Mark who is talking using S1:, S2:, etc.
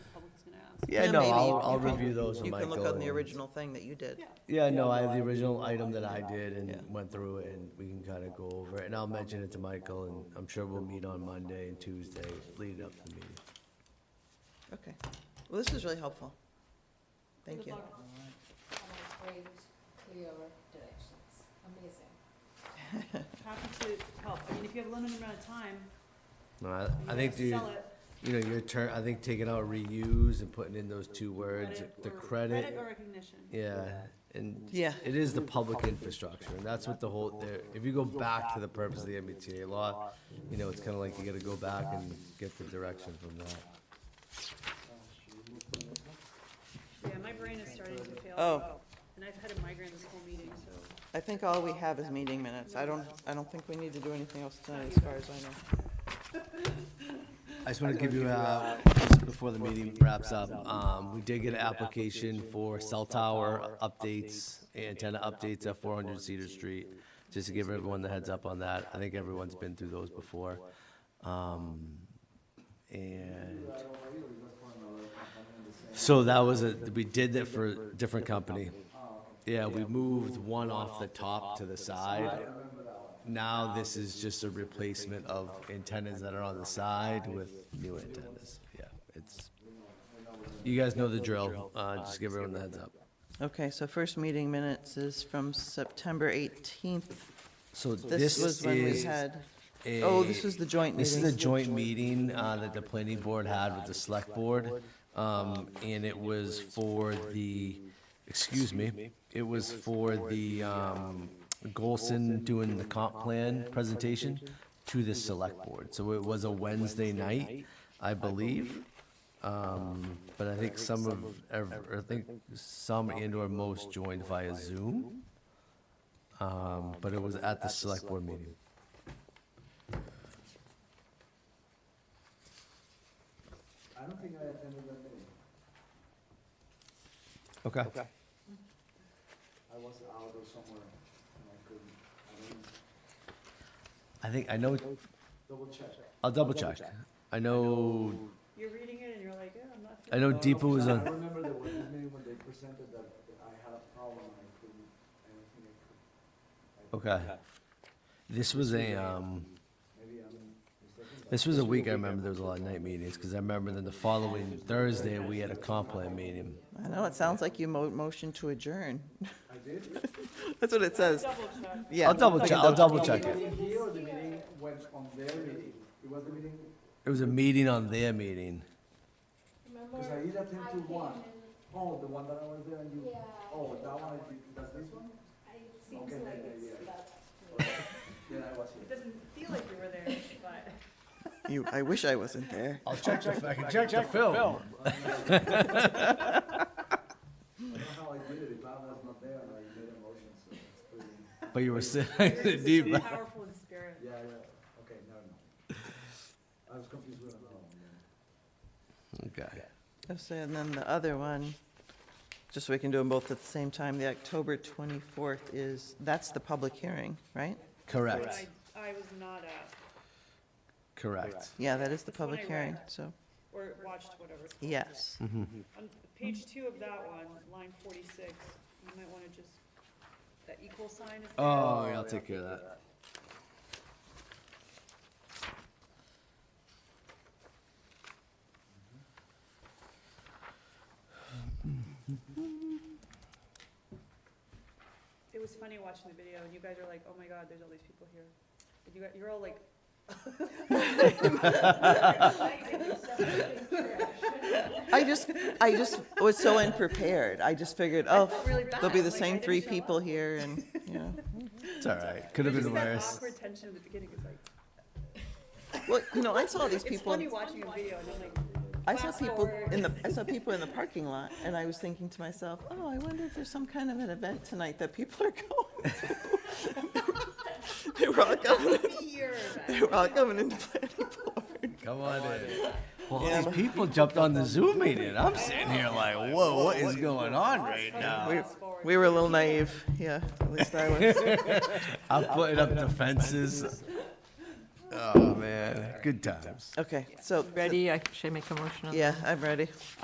S1: Yeah,
S2: Yeah,
S1: no,
S2: maybe
S1: I'll,
S2: you
S1: I'll
S2: can-
S1: review those
S2: You
S1: when I go.
S2: can look on the
S1: and-
S2: original thing that you did.
S1: Yeah, no, I have the original item that I did and
S2: Yeah.
S1: went through it, and we can kind of go over it, and I'll mention it to Michael, and I'm sure we'll meet on Monday and Tuesday, leading up to the meeting.
S2: Okay. Well, this is really helpful. Thank
S3: Good
S2: you.
S3: luck On our great clear directions, amazing.
S4: Happy to help. I mean, if you have a limited amount of time,
S1: No, I,
S4: and
S1: I
S4: you
S1: think,
S4: have to
S1: the
S4: sell it.
S1: you know, your turn, I think taking out reuse and putting in those two words,
S4: credit
S1: the
S4: or-
S1: credit,
S4: Credit or recognition.
S1: yeah, and
S2: Yeah.
S1: it is the public infrastructure, and that's what the whole, the- if you go back to the purpose of the MBTA law, you know, it's kind of like you gotta go back and get the direction from that.
S4: Yeah, my brain is starting to fail.
S2: Oh.
S4: And I've had a migraine this whole meeting, so.
S2: I think all we have is meeting minutes. I don't, I don't think we need to do anything else tonight, as far as I know.
S1: I just want to give you, uh, just before the meeting wraps up, um, we did get an application for cell tower updates, antenna updates at four hundred Cedar Street. Just to give everyone the heads up on that. I think everyone's been through those before. Um, and so that was a, we did that for a different company. Yeah, we moved one off the top to the side. Now this is just a replacement of antennas that are on the side with new antennas. Yeah, it's, you guys know the drill. Uh, just give everyone the heads up.
S2: Okay, so first meeting minutes is from September eighteenth.
S1: So this
S2: This was when we
S1: is
S2: had,
S1: a.
S2: oh, this was the joint
S1: This is a
S2: meeting.
S1: joint meeting, uh, that the planning board had with the select board. Um, and it was for the, excuse me, it was for the, um, Golson doing the comp plan presentation to the select board. So it was a Wednesday night, I believe. Um, but I think some of, ev- or I think some and or most joined via Zoom. Um, but it was at the select board meeting.
S5: I don't think I attended that meeting.
S1: Okay.
S5: I was out or somewhere and I couldn't, I didn't
S1: I think, I know
S5: double check.
S1: I'll double check. I know,
S4: You're reading it and you're like, oh, I'm not.
S1: I know
S5: No,
S1: Deepa was
S5: I
S1: on,
S5: remember the one meeting when they presented that that I had a problem and I couldn't, I don't think I could. I-
S1: okay. This was a, um,
S5: Maybe I'm mistaken, but
S1: this was a week I remember there was a lot of night meetings, because I remember then the following Thursday, we had a comp plan meeting.
S2: I know, it sounds like you mo- motioned to adjourn.
S5: I did.
S2: That's what it says.
S4: Double check.
S2: Yeah.
S1: I'll double check, I'll double check
S5: The
S1: it.
S5: meeting here or the meeting went on their meeting? It was the meeting,
S1: It was a meeting on their meeting.
S3: Remember,
S5: because I
S3: I
S5: did attend to
S3: came
S5: one.
S3: in,
S5: Oh, the one that I was there and you,
S3: Yeah.
S5: oh, that one, I did- that's this one?
S3: I- it seems
S5: Okay,
S3: like
S5: yeah,
S3: it's
S5: yeah,
S3: that.
S5: Then I was here.
S4: It doesn't feel like you were there, but.
S2: You, I wish I wasn't there.
S1: I'll check the, I can check the film.
S5: I don't know how I did it, if I was not there and I made a motion, so it's pretty,
S1: But you were
S4: You're just
S1: sitting
S4: so
S1: deep.
S4: Powerful in spirit.
S5: yeah, yeah, okay, no, no. I was confused with another one, yeah.
S1: Okay.
S2: Oh, so, And then the other one, just so we can do them both at the same time, the October 24th is, that's the public hearing, right?
S4: But
S1: Correct,
S4: I, I was not at,
S1: correct.
S2: Yeah, that is the
S4: That's the one
S2: public
S4: I read.
S2: hearing, so,
S4: or watched whatever. it's called.
S2: yes.
S4: On page two of that one, line forty-six, you might wanna just, that equal sign is there.
S1: Oh, yeah, I'll take care of that.
S4: It was funny watching the video, and you guys are like, oh my god, there's all these people here. And you, got- you're all like.
S2: I just, I just was so unprepared. I just figured, oh,
S4: really
S2: there'll be
S4: bad,
S2: the
S4: like, I
S2: same
S4: didn't
S2: three
S4: show
S2: people
S4: up.
S2: here and, you know.
S1: It's all right, could have
S4: There's
S1: been
S4: Just that
S1: worse.
S4: awkward tension at the beginning, it's like,
S2: Well, you know, I saw these
S4: it's
S2: people,
S4: funny watching a video, and I'm like,
S2: I saw
S4: fast
S2: people
S4: forward.
S2: in the, I saw people in the parking lot and I was thinking to myself, oh, I wonder if there's some kind of an event tonight that people are going to. They were all coming,
S4: here,
S2: they were all coming into planning
S1: Come on in. Well, all these people jumped on the Zoom meeting. I'm sitting here like, whoa, what is going on right now?
S2: We,
S4: fast forward.
S2: we were a little naive, yeah, at least I was.
S1: I'm putting up defenses. Oh, man, good times.
S2: Okay, so,
S6: Ready, I should make a motion on that?
S2: yeah, I'm ready.